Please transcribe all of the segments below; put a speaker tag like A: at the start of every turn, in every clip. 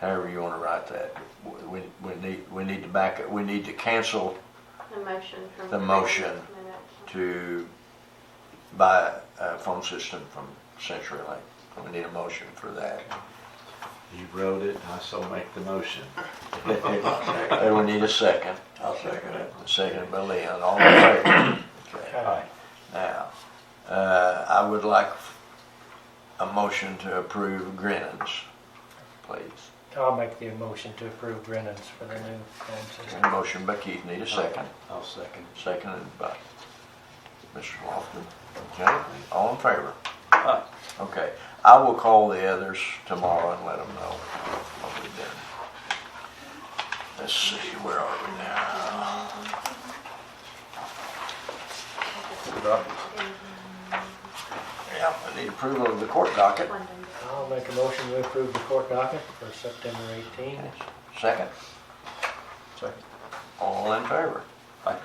A: however you wanna write that. We, we need, we need to back it, we need to cancel
B: The motion from.
A: The motion. to buy a phone system from CenturyLink. We need a motion for that.
C: You wrote it, I shall make the motion.
A: And we need a second.
D: I'll second it.
A: Second by Leon, all in favor. Okay.
C: Aye.
A: Now, uh, I would like a motion to approve Grinnon's, please.
E: I'll make the motion to approve Brennan's for the new phone system.
A: Motion by Keith, need a second.
C: I'll second.
A: Seconded by Mr. Lofton. Okay, all in favor?
C: Aye.
A: Okay, I will call the others tomorrow and let them know what we did. Let's see, where are we now? Yeah, I need approval of the court docket.
E: I'll make a motion to approve the court docket for September 18.
A: Second,
C: Second.
A: all in favor?
C: Aye.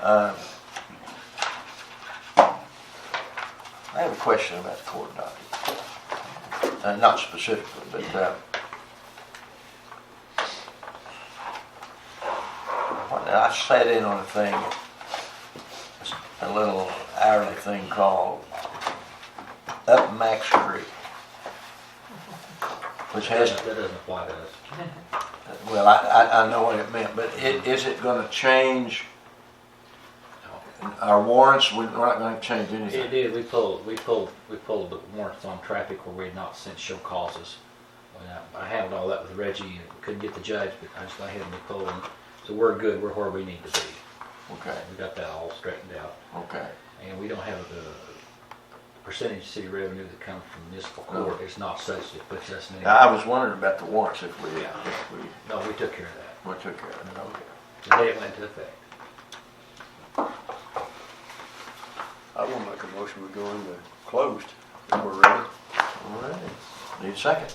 A: Uh, I have a question about the court docket. Uh, Not specifically, but uh, when I sat in on a thing, a little hourly thing called Up Max Creek, which has
C: That doesn't apply to us.
A: well, I, I, I know what it meant, but i- is it gonna change our warrants? We're not gonna change
F: It
A: anything.
F: did, we pulled, we pulled, we pulled the warrants on traffic where we had not sent show causes. When I- I handled all that with Reggie, and couldn't get the judge, but I just went ahead and we pulled them. So we're good, we're where we need to be.
A: Okay,
F: We got that all straightened out.
A: okay.
F: And we don't have the percentage of city revenue that comes from municipal court, it's not such, it puts us in.
A: Now, I was wondering about the warrants if we,
F: Yeah.
A: if we,
F: No, we took care of that,
A: we took care of it, okay.
F: the day it went into effect.
D: I will make a motion, we go into closed, if we're ready.
A: All right. Need a second?